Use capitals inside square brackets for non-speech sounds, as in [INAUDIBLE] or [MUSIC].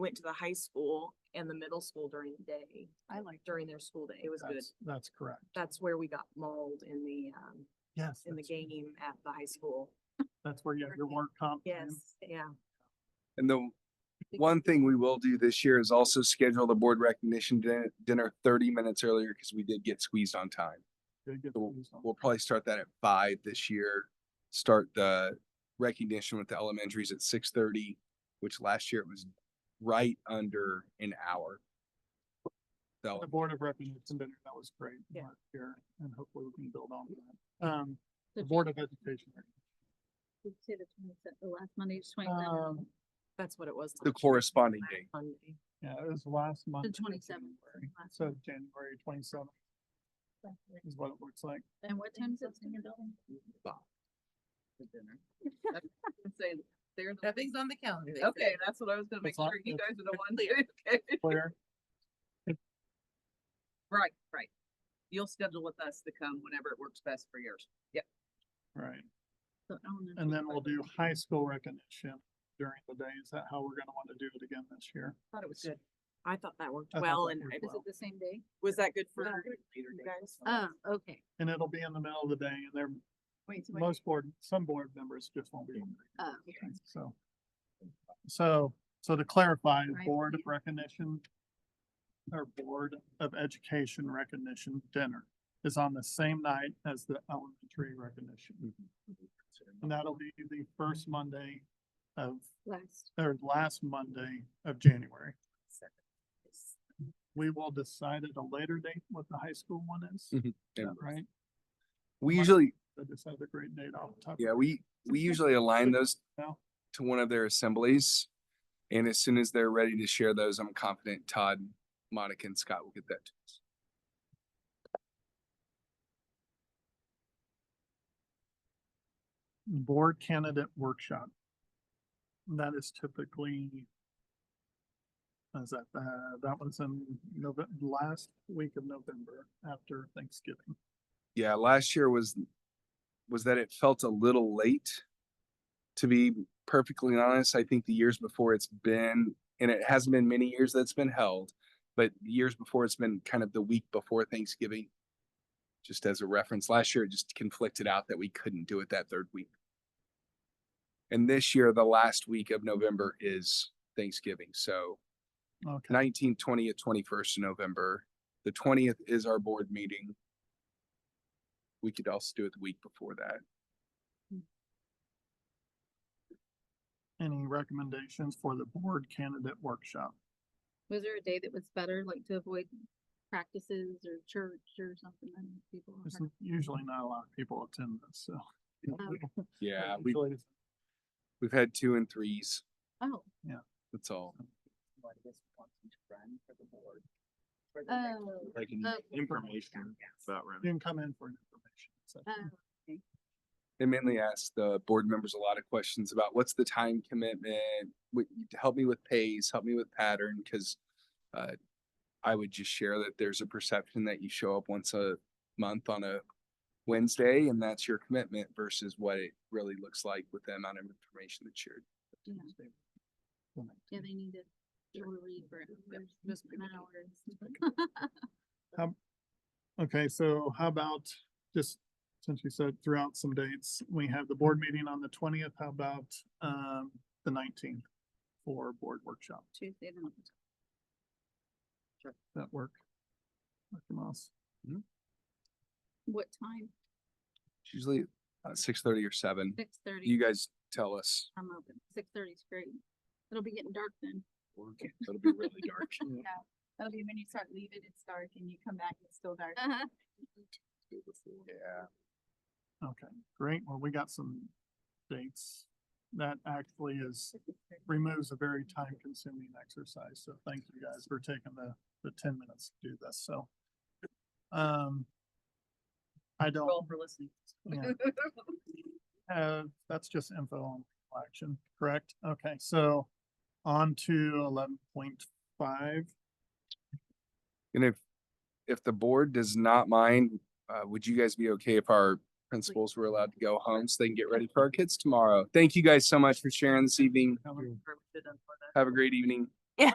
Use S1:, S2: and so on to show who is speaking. S1: went to the high school and the middle school during the day,
S2: I like.
S1: during their school day. It was good.
S3: That's- That's correct.
S1: That's where we got mauled in the, um,
S3: Yes.
S1: in the
S3: that's-
S1: game at the high school.
S3: That's where you have your
S2: Okay.
S3: work comp. plan.
S1: Yes, yeah.
S4: And the one thing we will do this year is also schedule the board recognition din- dinner thirty minutes earlier because we did get squeezed on time.
S3: Good, good
S4: So
S3: news on-
S4: We'll probably start that at five this year. Start the recognition with the elementaries at six thirty, which last year it was right under an hour. So
S3: The Board of Recognition dinner, that was great.
S1: Yeah.
S3: last year, and hopefully we can build on that. Um, the Board of Education.
S2: Did you say the 27th, the last Monday, is 27th?
S3: Um,
S1: That's what it was.
S4: the
S1: last year,
S4: corresponding
S1: last
S4: date.
S1: Monday.
S3: yeah, it was last month.
S2: the twenty-seventh.
S3: So January twenty-seventh is what it looks like.
S2: And what time is it in your building?
S5: Nothing's on the calendar.
S2: they
S5: Okay, that's what I was gonna make
S3: It's on-
S5: sure you
S3: it's-
S5: guys are the one leading. [LAUGHS] Okay.
S3: Claire,
S5: Right, right. You'll schedule with us to come whenever it works best for yours. Yep.
S3: right.
S2: The elementary
S3: And then we'll
S2: part of
S3: do
S2: it.
S3: high school recognition during the day. Is that how we're gonna want to do it again this year?
S1: Thought it was good. I thought that worked
S3: I thought
S1: well
S3: that
S1: and
S3: worked
S1: I-
S2: Is it the same day?
S1: was that good for
S2: Yeah.
S1: you guys?
S2: Oh,
S5: Um,
S2: okay.
S3: And it'll be in the middle of the day and there,
S2: Wait, so wait,
S3: most board, some board members just won't be. able to make
S2: oh,
S3: it, So. So, so to clarify,
S2: Right.
S3: Board of Recognition or Board of Education Recognition Dinner is on the same night as the elementary recognition. And that'll be the first Monday of,
S2: last.
S3: or last Monday of January. We will decide at a later date what the high school one is, is
S4: Mhm.
S3: that right?
S4: We
S3: Why-
S4: usually,
S3: I just had the great date off the top. of
S4: yeah, we, we usually align those
S3: No.
S4: to one of their assemblies. And as soon as they're ready to share those, I'm confident Todd, Monica and Scott will get that. to us.
S3: board candidate workshop. That is typically. Is that, uh, that was in November, last week of November after Thanksgiving.
S4: Yeah, last year was, was that it felt a little late. To be perfectly honest, I think the years before it's been, and it hasn't been many years that's been held, but the years before it's been kind of the week before Thanksgiving. Just as a reference, last year it just conflicted out that we couldn't do it that third week. And this year, the last week of November is Thanksgiving, so
S3: Okay,
S4: nineteenth, twentieth, twenty-first of November. The twentieth is our board meeting. We could also do it the week before that.
S3: any recommendations for the board candidate workshop?
S2: Was there a day that was better, like to avoid practices or church or something and people? are-
S3: There's n- usually not a lot of people attend this, so.
S4: Yeah, we,
S3: Usually it's
S4: we've had two and threes,
S2: Oh,
S4: that's all.
S5: um,
S2: oh,
S6: Like an
S2: Oh.
S6: information about
S3: You
S6: running.
S3: can come in for an information.
S2: oh,
S3: session.
S4: They mainly ask the board members a lot of questions about what's the time commitment, what, help me with pace, help me with pattern, cause uh, I would just share that there's a perception that you show up once a month on a Wednesday and that's your commitment versus what it really looks like with the amount of information that's shared.
S2: yeah, yeah, they need to. They were read for hours
S5: just
S2: and
S5: people
S2: hours.
S3: Okay, so how about, just since you said throughout some dates, we have the board meeting on the twentieth, how about, um, the nineteenth? For board workshop,
S2: [LAUGHS] Tuesday, the ninth.
S3: Does that work? Dr. Moss,
S2: what time?
S4: It's usually uh, six thirty or seven.
S2: Six thirty.
S4: You guys tell us.
S2: I'm open. Six thirty is great. It'll be getting dark then.
S4: It'll be really dark.
S2: [LAUGHS] That'll be when you start leaving, it's dark and you come back, it's still dark. [LAUGHS]
S4: Yeah.
S3: okay, great, well, we got some dates. That actually is, removes a very time consuming exercise, so thank you guys for taking the, the ten minutes to do this, so. Um. I don't.
S5: Well, for listening.
S3: yeah.
S2: [LAUGHS]
S3: Uh, that's just info on legal action, correct? Okay, so on to eleven point five.
S4: And if, if the board does not mind, uh, would you guys be okay if our principals were allowed to go home so they can get ready for our kids tomorrow? Thank you guys so much for sharing this evening.
S5: Or we should have done for that.
S4: Have a great evening.